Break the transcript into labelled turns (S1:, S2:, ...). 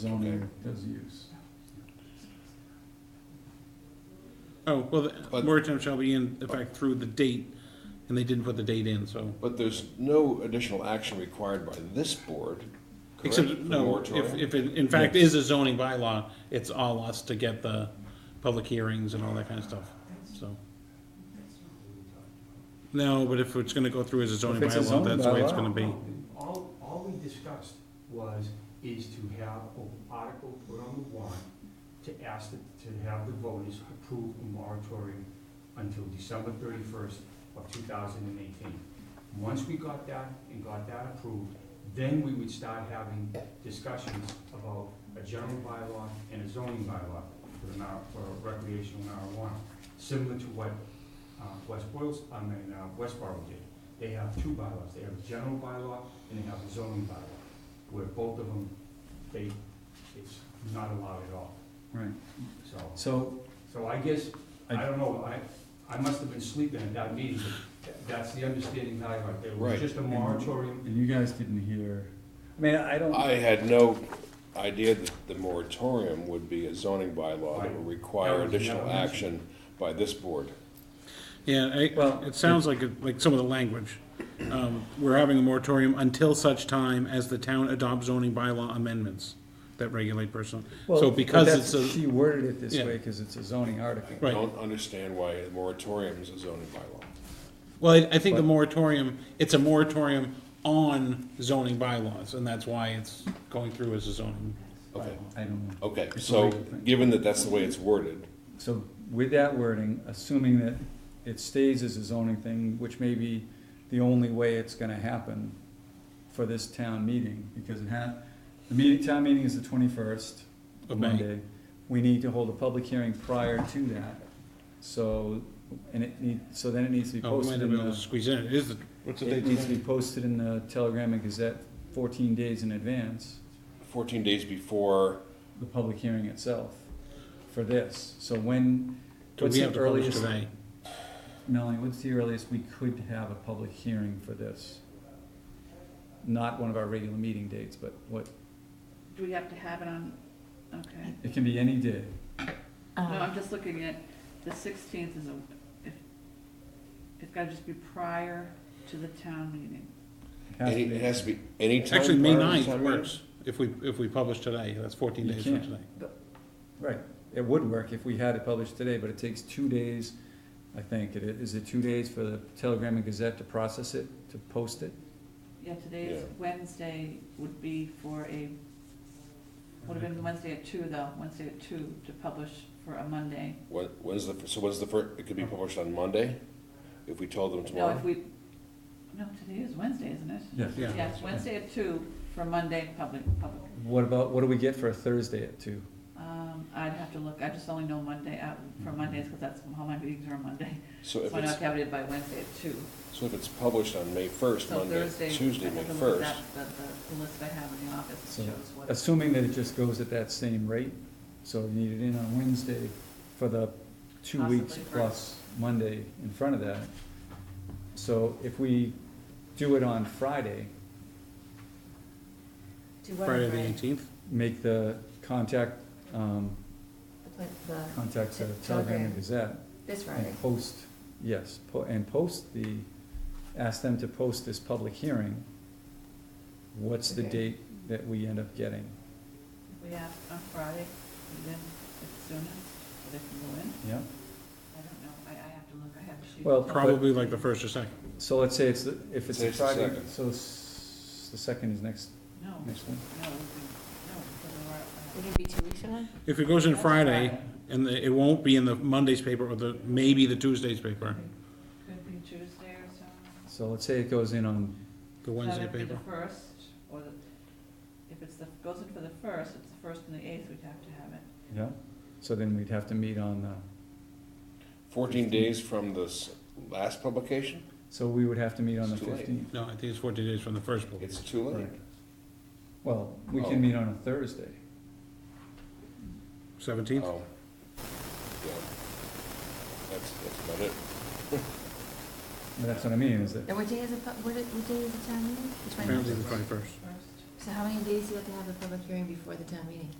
S1: zoning does use.
S2: Oh, well, the
S3: But-
S2: moratorium shall be in effect through the date, and they didn't put the date in, so.
S3: But there's no additional action required by this board, correct?
S2: Except,
S3: for
S2: no, if,
S3: moratorium?
S2: if it in fact is a zoning bylaw, it's all us to get the public hearings and all that kind of stuff, so. No, but if it's gonna go through as a zoning
S1: If it's a
S2: bylaw,
S1: zoning
S2: that's the way it's
S1: bylaw.
S2: gonna be.
S4: All, all we discussed was, is to have an article put on the warrant to ask, the- to have the voters approve a moratorium until December thirty-first of two thousand and eighteen. Once we got that and got that approved, then we would start having discussions about a general bylaw and a zoning bylaw for the mar, for recreational marijuana, similar to what, uh, West Boylston, I mean, uh, Westboro did. They have two bylaws, they have a general bylaw and they have a zoning bylaw, where both of them, they, it's not allowed at all,
S1: Right,
S4: so.
S1: so
S4: So I guess, I
S1: I-
S4: don't know, I, I must have been sleeping at that meeting, but that's the understanding that I got, there
S3: Right.
S4: was just a moratorium.
S1: And you guys didn't hear, I mean, I don't,
S3: I had no idea that the moratorium would be a zoning bylaw that would require
S4: That was
S3: additional
S4: never
S3: action by this board.
S2: Yeah,
S1: Well,
S2: I, it sounds like, it- like some of the language. Um, we're having a moratorium until such time as the town adopts zoning bylaw amendments that regulate personal.
S1: well,
S2: So
S1: but
S2: because
S1: that's-
S2: it's a.
S1: She worded it this
S2: Yeah.
S1: way, cause it's a zoning article.
S2: Right.
S3: Don't understand why a moratorium is a zoning bylaw.
S2: Well, I, I think the
S1: But-
S2: moratorium, it's a moratorium on zoning bylaws, and that's why it's going through as a zoning. Oh,
S3: Okay,
S1: I don't know.
S3: okay,
S1: It's a
S3: so,
S1: legal thing.
S3: given that that's the way it's worded,
S1: So with that wording, assuming that it stays as a zoning thing, which may be the only way it's gonna happen for this town meeting, because it ha, the meeting, town meeting is the twenty-first,
S2: Of May.
S1: Monday. We need to hold a public hearing prior to that, so, and it need, so then it needs to be
S2: Oh, we might
S1: posted
S2: not
S1: in
S2: be able
S1: the.
S2: to squeeze in, it is, the- what's the
S1: It
S2: date
S1: needs to
S2: today?
S1: be posted in the Telegram and Gazette fourteen days in advance,
S3: fourteen days before,
S1: the public hearing itself for this. So when,
S2: Do
S1: what's
S2: we have
S1: the
S2: to publish
S1: earliest,
S2: today?
S1: Melanie, what's the earliest we could have a public hearing for this? Not one of our regular meeting dates, but what,
S5: Do we have to have it on, okay.
S1: it can be any day.
S5: No,
S6: Uh,
S5: I'm just looking at, the sixteenth is a, if, it's gotta just be prior to the town meeting.
S1: It has to
S3: any-
S1: be-
S3: it has to be any time.
S2: Actually, May
S3: prior to
S2: ninth
S3: town meeting?
S2: works, if we, if we publish today, that's fourteen
S1: You
S2: days from
S1: can't.
S2: today.
S1: Right, it would work if we had it published today, but it takes two days, I think. It Is it two days for the Telegram and Gazette to process it, to post it?
S5: Yeah, today's
S3: Yeah.
S5: Wednesday would be for a, would have been Wednesday at two though, Wednesday at two to publish for a Monday.
S3: When, when's the, so when's the first, it could be published on Monday, if we told them
S5: Oh. No, if
S3: tomorrow?
S5: we, no, today is Wednesday, isn't it?
S1: Yes.
S2: Yeah.
S5: Yes, Wednesday at two for Monday, public, public.
S1: What about, what do we get for a Thursday at two?
S5: Um, I'd have to look, I just only know Monday, uh, for Mondays, cause that's how my meetings are on Monday.
S3: So if
S5: So I
S3: it's,
S5: have to have it by Wednesday at two.
S3: so if it's published on May first,
S5: So
S3: Monday,
S5: Thursday,
S3: Tuesday,
S5: I
S3: May
S5: have to look
S3: first.
S5: at that, the, the list I have in the office
S1: So,
S5: shows what.
S1: Assuming that it just goes at that same rate, so you need it in on Wednesday for the two weeks
S5: Possibly for-
S1: plus Monday in front of that. So if we do it on Friday,
S6: Do what,
S2: Friday the
S6: Brian?
S2: eighteenth,
S1: make the contact, um,
S6: The pla- the-
S1: contact the Telegram
S6: Telegram.
S1: and Gazette
S6: This Friday.
S1: and post, yes, po- and post the, ask them to post this public hearing. What's the
S6: Okay.
S1: date that we end up getting?
S5: If We have on Friday, and then it's sooner, so they can go in,
S1: Yeah?
S5: I don't know, I, I have to look, I have to shoot.
S1: Well,
S5: But-
S2: probably like the first or second.
S1: So let's say it's, the- if it's
S3: Say
S1: a
S3: it's the
S1: Friday,
S3: second.
S1: so s- the second is next,
S5: No, no,
S1: next one.
S5: no, no, because we're,
S6: It
S5: uh,
S6: could be two weeks from now?
S2: If it goes in
S5: That's
S2: Friday,
S5: Friday.
S2: and the- it won't be in the Monday's paper, or the, maybe the Tuesday's paper,
S5: could be Tuesday or something.
S1: So let's say it goes in on,
S2: the
S5: So
S2: Wednesday
S5: it'd be
S2: paper.
S5: the first, or the, if it's the, goes in for the first, it's the first and the eighth, we'd have to have it.
S1: yeah, so then we'd have to meet on uh, the,
S3: Fourteen days from the s- last publication?
S1: so we would have to meet on the
S3: It's too late.
S1: fifteenth.
S2: No, I think it's fourteen days from the first book.
S3: It's too late.
S1: Right. Well, we
S3: Oh.
S1: can meet on a Thursday.
S2: Seventeenth,
S3: Oh. Yeah. That's, that's about it.
S1: That's what I mean, is that,
S6: And what day is it, pu- what, it- what day is the town meeting? The 20th?
S2: apparently the twenty-first.
S5: First.
S6: So how many days do you have to have the public hearing before the town meeting?